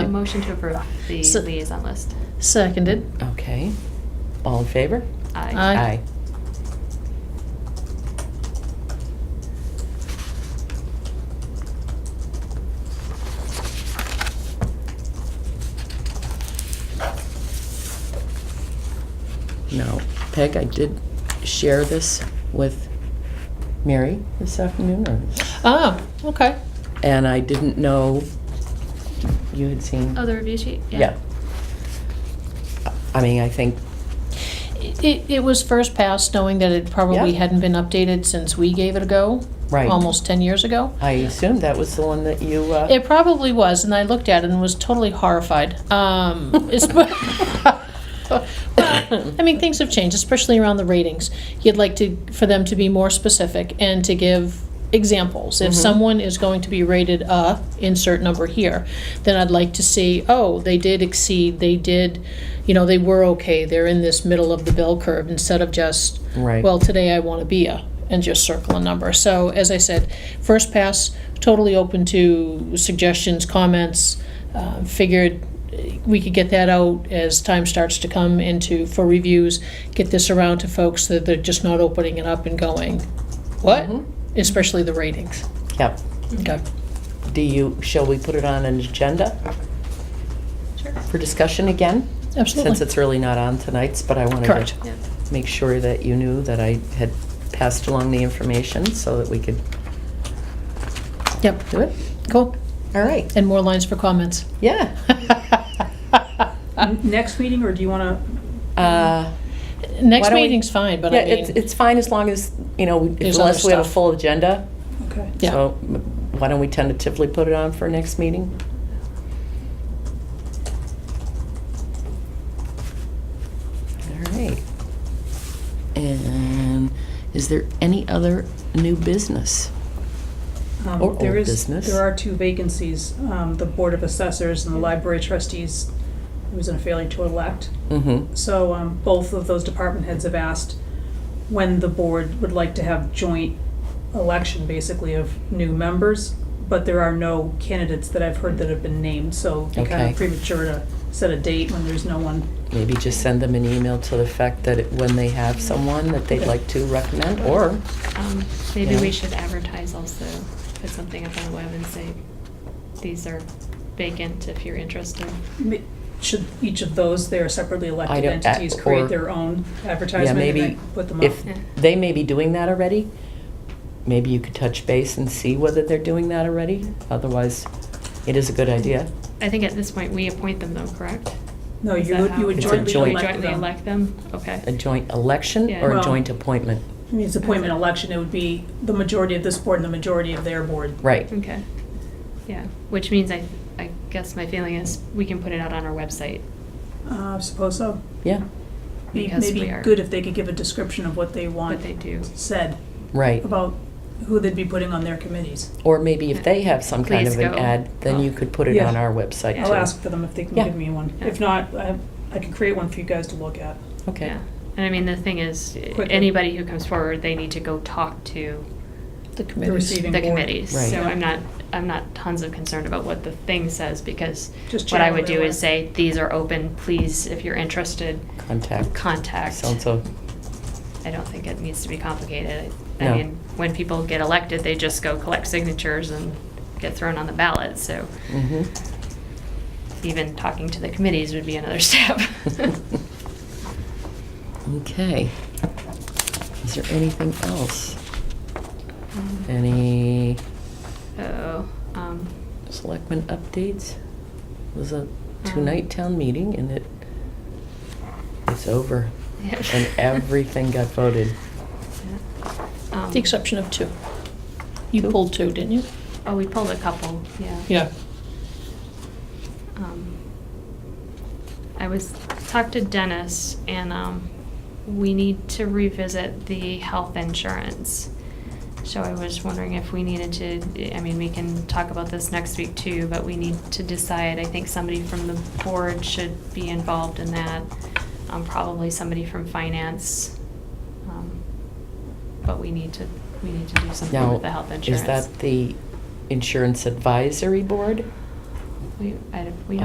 motion to approve the So- liaison list. Seconded. Okay. All in favor? Aye. Uh, Aye. Now, Peg, I did share this with Mary this afternoon, or- Ah, okay. and I didn't know you had seen. Oh, the review sheet? Yeah. I mean, I think, It, it was first passed knowing that it probably Yeah. hadn't been updated since we gave it a go. Right. Almost 10 years ago. I assume that was the one that you, uh, It probably was, and I looked at it and was totally horrified. Um, it's- I mean, things have changed, especially around the ratings. You'd like to, for them to be more specific and to give examples. If Mhm. someone is going to be rated a, insert number here, then I'd like to see, oh, they did exceed, they did, you know, they were okay, they're in this middle of the bell curve, instead of just, right. well, today I want to be a, and just circle a number. So, as I said, first pass, totally open to suggestions, comments. Uh, Figured eh, we could get that out as time starts to come into, for reviews, get this around to folks that they're just not opening it up and going, what? Mm-hmm. Mhm. Especially the ratings. Yep. Okay. Do you, shall we put it on an agenda Sure. for discussion again? Since Absolutely. it's really not on tonight's, but I wanted Correct. to Yeah. make sure that you knew that I had passed along the information so that we could Yep, do it. cool. All right, And more lines for comments. yeah. N- Next meeting, or do you want Uh, Why Next don't we- meeting's fine, but Yeah, I it's, mean, it's fine as long as, you know, we- There's other unless we have a stuff. full agenda. to? Okay. yeah, So m- why don't we tentatively put it on for next meeting? All right. And is there any other new business? Um, Or there old is- business. There are two vacancies, um, the Board of Assessors and the Library Trustees, who is in a failure to elect. Mm-hmm. So um, both of those department heads have asked when the board would like to have joint election, basically, of new members, but there are no candidates that I've heard that have been named, so it'd be kind Okay. of premature to set a date when there's no one. Maybe just send them an email to the effect that it- when they have someone that they'd like to recommend, or, Um, Maybe Yeah. we should advertise also, put something up on the web and say, these are vacant if you're interested. M- Should each of those, they are separately elected don't- at- entities, or- create their own yeah, advertisement and maybe then put them up? if, Yeah. they may be doing that already. Maybe you could touch base and see whether they're doing that already. Otherwise, it is a good idea. I think at this point, we appoint them though, correct? No, Is you that would, how- you would It's a jointly joint- elect Jointly them. elect them? Okay. A joint election Yeah. or a Well- joint appointment? I mean, it's appointment election, it would be the majority of this board and the majority of their board. Right. Okay, yeah, which means I, I guess my feeling is we can put it out on our website. Uh, I suppose so. Yeah, Be- Because Maybe we are- good if they could give a description of what they want What they do. said right. about who they'd be putting on their committees. Or maybe if they have some kind Please of an go. ad, then you could put it Yeah. on our website too. Yeah. I'll ask for them if they can Yeah. give me one. Yeah. If not, I, I can create one for you guys to look at. Okay, Yeah. And I mean, the thing is, Quickly. anybody who comes forward, they need to go talk to the They're committees. receiving the board. committees. Right. So I'm not, I'm not tons of concerned about what the thing says, because Just what I channel would their do is work. say, these are open, please, if you're interested, contact. contact. So-and-so. I don't think it needs to be complicated. I- No. I mean, when people get elected, they just go collect signatures and get thrown on the ballot, so Mhm. even talking to the committees would be another step. Okay. Is there anything else? Any So, um, selectmen updates? It was a Um. two-night town meeting and it, it's over. yeah. And everything got voted. Yeah. Um, The exception of two. You Two? pulled two, didn't you? Oh, we pulled a couple, yeah. Yeah. Um, I was, talked to Dennis, and um, we need to revisit the health insurance. So I was wondering if we needed to, I mean, we can talk about this next week too, but we need to decide, I think somebody from the board should be involved in that. Um, probably somebody from finance. Um, But we need to, we need to do something Now, with the health insurance. is that the insurance advisory board? We, I, we